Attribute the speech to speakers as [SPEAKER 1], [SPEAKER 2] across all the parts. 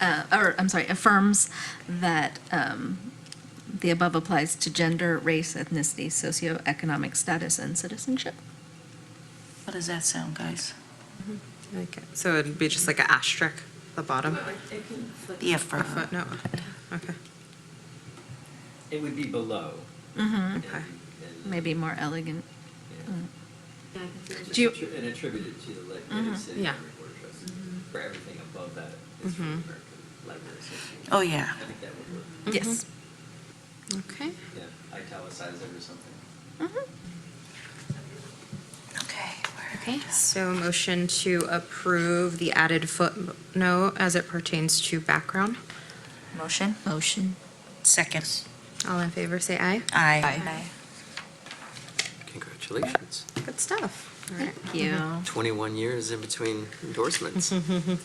[SPEAKER 1] uh, or, I'm sorry, affirms that um, the above applies to gender, race, ethnicity, socioeconomic status, and citizenship.
[SPEAKER 2] What does that sound, guys?
[SPEAKER 3] Okay, So it'd be just like an asterisk at the bottom,
[SPEAKER 2] The
[SPEAKER 3] a
[SPEAKER 2] affirm.
[SPEAKER 3] footnote? Okay.
[SPEAKER 4] It would be below.
[SPEAKER 1] Mhm.
[SPEAKER 4] and-
[SPEAKER 3] Okay.
[SPEAKER 4] and-
[SPEAKER 1] Maybe more elegant.
[SPEAKER 4] yeah.
[SPEAKER 1] Do
[SPEAKER 4] Just
[SPEAKER 1] you-
[SPEAKER 4] attri- And attributed to the Leadville City
[SPEAKER 3] Yeah.
[SPEAKER 4] Library Board of Trustees. For everything above that is from the
[SPEAKER 3] Mhm.
[SPEAKER 4] American Library Association.
[SPEAKER 2] Oh, yeah.
[SPEAKER 4] I think that would work.
[SPEAKER 1] Yes.
[SPEAKER 3] Okay.
[SPEAKER 4] Yeah, italicize it or something.
[SPEAKER 1] Mhm.
[SPEAKER 2] Okay.
[SPEAKER 3] Okay, so motion to approve the added footnote as it pertains to background.
[SPEAKER 2] Motion? Motion. Second.
[SPEAKER 3] All in favor, say aye.
[SPEAKER 2] Aye.
[SPEAKER 4] Congratulations.
[SPEAKER 3] Good stuff. All right.
[SPEAKER 1] Thank you.
[SPEAKER 4] 21 years in between endorsements. And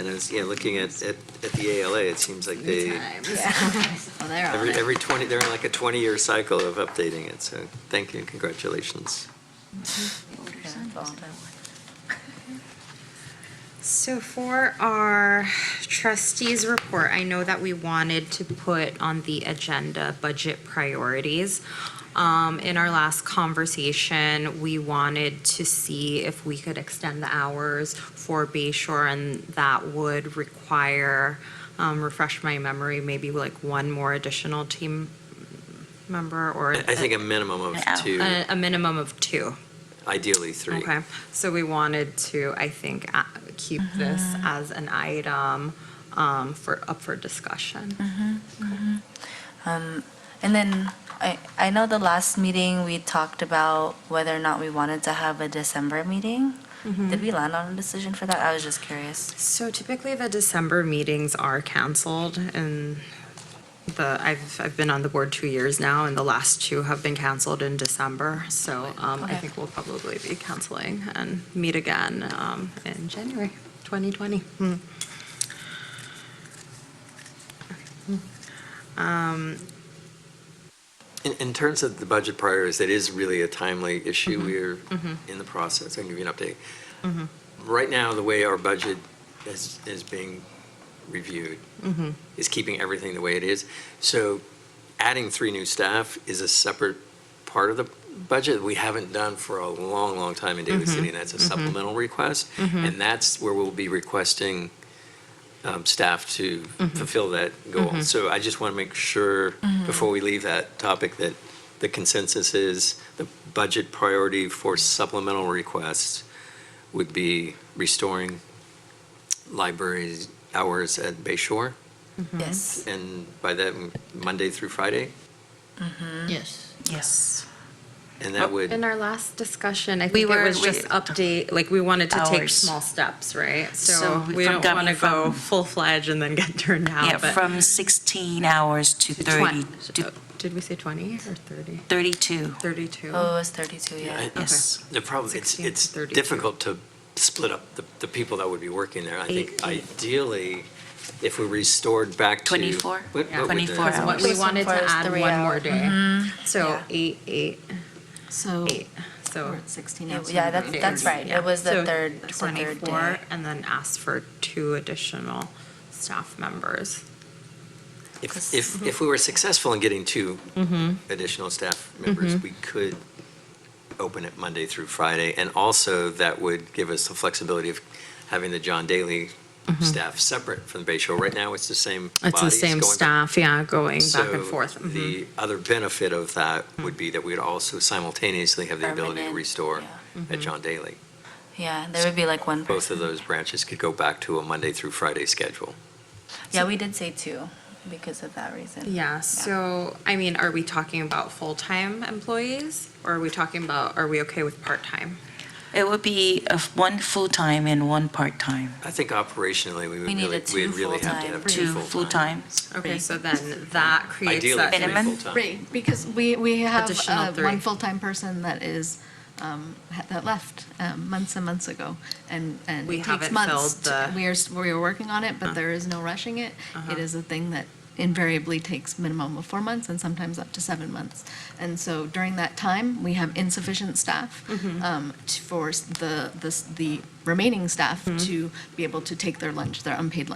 [SPEAKER 4] I was, yeah, looking at, at at the ALA, it seems like they,
[SPEAKER 1] Well, they're on
[SPEAKER 4] every,
[SPEAKER 1] it.
[SPEAKER 4] every 20, they're in like a 20-year cycle of updating it, so thank you and congratulations.
[SPEAKER 3] So for our trustees report, I know that we wanted to put on the agenda budget priorities. Um, in our last conversation, we wanted to see if we could extend the hours for Bay Shore and that would require, um, refresh my memory, maybe like one more additional team member or
[SPEAKER 4] I I think a minimum of
[SPEAKER 2] An hour.
[SPEAKER 4] two,
[SPEAKER 3] a, a minimum of two.
[SPEAKER 4] ideally three.
[SPEAKER 3] Uh, Okay, so we wanted to, I think, a- keep this as an item um, for, up for discussion.
[SPEAKER 5] And then I, I know the last meeting we talked about whether or not we wanted to have a December meeting. Did we land on a decision for that? I was just curious.
[SPEAKER 3] So typically, the December meetings are canceled, and the, I've, I've been on the board two years now, and the last two have been canceled in December, so um, I
[SPEAKER 5] Okay.
[SPEAKER 3] think we'll probably be canceling and meet again um, in January 2020. Hmm.
[SPEAKER 4] In, in terms of the budget priorities, that is really a timely issue. We're in the process. I can give you an update. Right now, the way our budget is, is being reviewed is keeping everything the way it is. So adding three new staff is a separate part of the budget we haven't done for a long, long time in Daly City, and that's a supplemental request. And that's where we'll be requesting um, staff to fulfill that goal. So I just want to make sure, before we leave that topic, that the consensus is the budget priority for supplemental requests would be restoring libraries hours at Bay Shore,
[SPEAKER 5] Yes.
[SPEAKER 4] and by that, Monday through Friday.
[SPEAKER 2] Yes. Yes.
[SPEAKER 4] And that would,
[SPEAKER 3] In our last discussion, I
[SPEAKER 2] We
[SPEAKER 3] think it
[SPEAKER 2] were-
[SPEAKER 3] was
[SPEAKER 2] we-
[SPEAKER 3] just update, like, we wanted to take
[SPEAKER 2] Hours.
[SPEAKER 3] small steps, right?
[SPEAKER 2] So
[SPEAKER 3] So we
[SPEAKER 2] from
[SPEAKER 3] don't
[SPEAKER 2] coming
[SPEAKER 3] want to go
[SPEAKER 2] from-
[SPEAKER 3] full-fledged and then get turned
[SPEAKER 2] Yeah,
[SPEAKER 3] out, but.
[SPEAKER 2] from 16 hours to 30,
[SPEAKER 3] 20.
[SPEAKER 2] to
[SPEAKER 3] Did we say 20 or 30?
[SPEAKER 2] 32.
[SPEAKER 3] 32.
[SPEAKER 5] Oh, it was 32, yeah.
[SPEAKER 4] I-
[SPEAKER 2] Yes.
[SPEAKER 4] the problem, it's,
[SPEAKER 3] 16 to
[SPEAKER 4] it's
[SPEAKER 3] 32.
[SPEAKER 4] difficult to split up the, the people that would be working there. I think
[SPEAKER 3] Eight, eight.
[SPEAKER 4] ideally, if we restored back to.
[SPEAKER 2] 24?
[SPEAKER 4] What-
[SPEAKER 2] Yeah.
[SPEAKER 4] what would the-
[SPEAKER 2] 24
[SPEAKER 3] Because what
[SPEAKER 2] hours.
[SPEAKER 3] we
[SPEAKER 5] Plus one
[SPEAKER 3] wanted
[SPEAKER 5] for
[SPEAKER 3] to
[SPEAKER 5] us,
[SPEAKER 3] add
[SPEAKER 5] three
[SPEAKER 3] one
[SPEAKER 5] out.
[SPEAKER 3] more day. So
[SPEAKER 5] Yeah.
[SPEAKER 3] eight, eight,
[SPEAKER 1] So
[SPEAKER 3] eight, so.
[SPEAKER 1] we're at 16
[SPEAKER 5] It-
[SPEAKER 1] hours.
[SPEAKER 5] Yeah,
[SPEAKER 1] and
[SPEAKER 5] that's, that's right.
[SPEAKER 3] Yeah.
[SPEAKER 5] It was the
[SPEAKER 3] So
[SPEAKER 5] third, the third
[SPEAKER 3] 24,
[SPEAKER 5] day.
[SPEAKER 3] and then ask for two additional staff members.
[SPEAKER 4] If,
[SPEAKER 3] mm-hmm.
[SPEAKER 4] if, if we were successful in getting two additional staff members,
[SPEAKER 3] Mm-hmm.
[SPEAKER 4] we could open it Monday through Friday. And also, that would give us the flexibility of having the John Daly staff separate from the Bay Shore. Right now, it's the same bodies.
[SPEAKER 3] Mm-hmm. It's the same
[SPEAKER 4] going
[SPEAKER 3] staff, yeah, going back and
[SPEAKER 4] So
[SPEAKER 3] forth. Mm-hmm. Mhm.
[SPEAKER 4] The other benefit of that would be that we'd also simultaneously have the ability to
[SPEAKER 5] Permanent,
[SPEAKER 4] restore
[SPEAKER 5] yeah.
[SPEAKER 3] Mm-hmm.
[SPEAKER 4] at John Daly.
[SPEAKER 5] Yeah, there would be like one person.
[SPEAKER 4] Both of those branches could go back to a Monday through Friday schedule.
[SPEAKER 5] Yeah, we did say two because of that reason.
[SPEAKER 3] Yeah, so, I mean, are we talking about full-time employees? Or are we talking about, are we okay with part-time?
[SPEAKER 2] It would be of one full-time and one part-time.
[SPEAKER 4] I think operationally, we would
[SPEAKER 5] We need
[SPEAKER 4] really,
[SPEAKER 5] a two
[SPEAKER 4] we'd really have to
[SPEAKER 5] full-time.
[SPEAKER 4] have
[SPEAKER 2] Two
[SPEAKER 4] two full-time.
[SPEAKER 2] full-times.
[SPEAKER 3] Okay, so then that creates
[SPEAKER 4] Ideally,
[SPEAKER 3] that.
[SPEAKER 4] three
[SPEAKER 2] Minimum?
[SPEAKER 4] full-time.
[SPEAKER 1] Right, because we, we have
[SPEAKER 3] Additional
[SPEAKER 1] uh,
[SPEAKER 3] three.
[SPEAKER 1] one full-time person that is, um, ha- that left um, months and months ago. And, and
[SPEAKER 3] We
[SPEAKER 1] it takes
[SPEAKER 3] haven't
[SPEAKER 1] months.
[SPEAKER 3] filled
[SPEAKER 1] to-
[SPEAKER 3] the- Uh-huh.
[SPEAKER 1] We are, s- we are working on it, but there is no rushing it. It is a thing that invariably takes minimum of four months and sometimes up to seven months. And so during that time, we have insufficient staff
[SPEAKER 3] Mm-hmm.
[SPEAKER 1] um,
[SPEAKER 3] Mm-hmm.
[SPEAKER 1] to force the, the, s- the remaining staff to be able to take their lunch, their unpaid lunch.